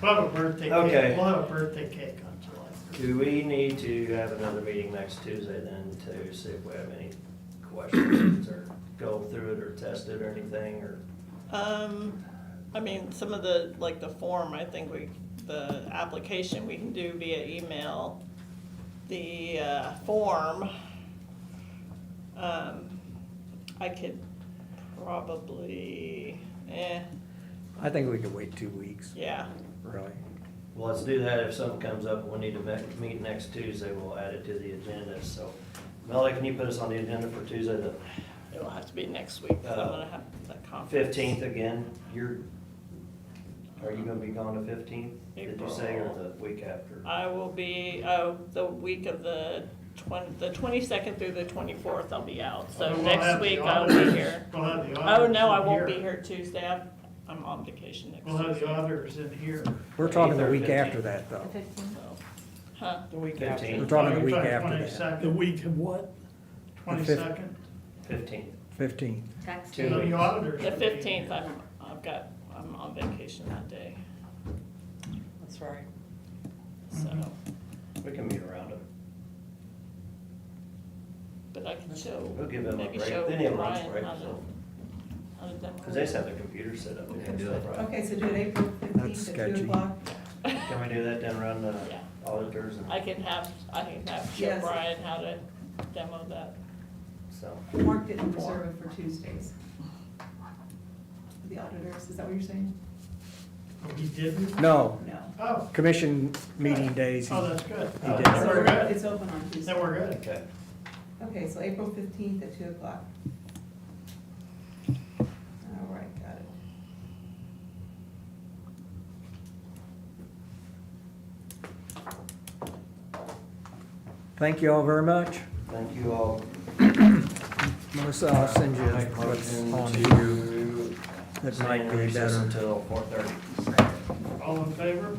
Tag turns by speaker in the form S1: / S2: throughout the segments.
S1: We'll have a birthday
S2: Okay.
S1: cake, we'll have a birthday cake on July third.
S2: Do we need to have another meeting next Tuesday then to see if we have any questions or go through it or test it or anything or?
S3: Um, I mean, some of the, like the form, I think we, the application we can do via email. The, uh, form, um, I could probably, eh,
S4: I think we could wait two weeks,
S3: yeah,
S4: really.
S2: Well, let's do that. If something comes up, and we need to me- meet next Tuesday, we'll add it to the agenda, so. Melody, can you put us on the agenda for Tuesday, the
S3: it'll have to be next week, 'cause I'm gonna have that conference.
S2: fifteenth again? You're, are you gonna be gone the fifteenth? Did you say, or the week after?
S3: I will be, oh, the week of the twen- the twenty-second through the twenty-fourth, I'll be out, so
S1: And we'll have
S3: next
S1: the
S3: week I'll be
S1: auditors-
S3: here.
S1: We'll have the
S3: Oh,
S1: auditors
S3: no, I
S1: in
S3: won't be here Tuesday, I'm, I'm on vacation next
S1: We'll have
S3: week,
S1: the auditors in here.
S4: We're talking the week
S2: 8th or
S4: after that, though.
S3: so. Huh,
S5: The week after.
S2: Fifteenth.
S4: We're talking the week
S1: Probably
S4: after that,
S5: The
S1: Twenty-second,
S5: week of what?
S1: twenty-second,
S2: Fifteenth.
S4: fifteen.
S6: That's
S2: Two.
S1: the auditors.
S3: the
S1: will be in
S3: fifteenth,
S1: here.
S3: I'm, I've got, I'm on vacation that day,
S5: That's right.
S3: so,
S2: We can meet around him.
S3: but I can show,
S2: We'll give him a
S3: Maybe
S2: break.
S3: show
S2: They need a lunch
S3: Ryan
S2: break,
S3: how to-
S2: so.
S3: how to demo.
S2: Cause they just have their computer set up. They can do that, right?
S7: Okay, so do it April
S4: That's
S7: fifteenth at
S4: sketchy.
S7: two o'clock?
S2: Can we do that then around the
S3: Yeah.
S2: auditors
S3: I
S2: and,
S3: can have, I can have, show
S7: Yes.
S3: Brian how to demo that.
S2: so.
S7: Mark didn't reserve it for Tuesdays. The auditors, is that what you're saying?
S1: Oh, He didn't?
S4: No,
S7: No.
S1: Oh,
S4: commission meeting days,
S1: oh,
S4: he
S1: that's good.
S4: he
S2: Oh,
S4: did.
S1: Then
S7: So
S1: we're good.
S7: It's open on
S1: Then
S7: Tuesday.
S1: we're good.
S2: Okay.
S7: Okay, so April fifteenth at two o'clock. All right, got it.
S4: Thank you all very much.
S2: Thank you all.
S4: Melissa, I'll send you
S2: Make
S4: what's
S2: motion
S4: on
S2: to
S4: here that
S2: stay in
S4: might be
S2: recess
S4: better.
S2: Until four thirty.
S1: All in favor?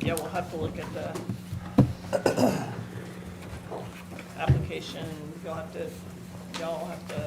S3: Yeah, we'll have to look at the application, you'll have to, y'all have to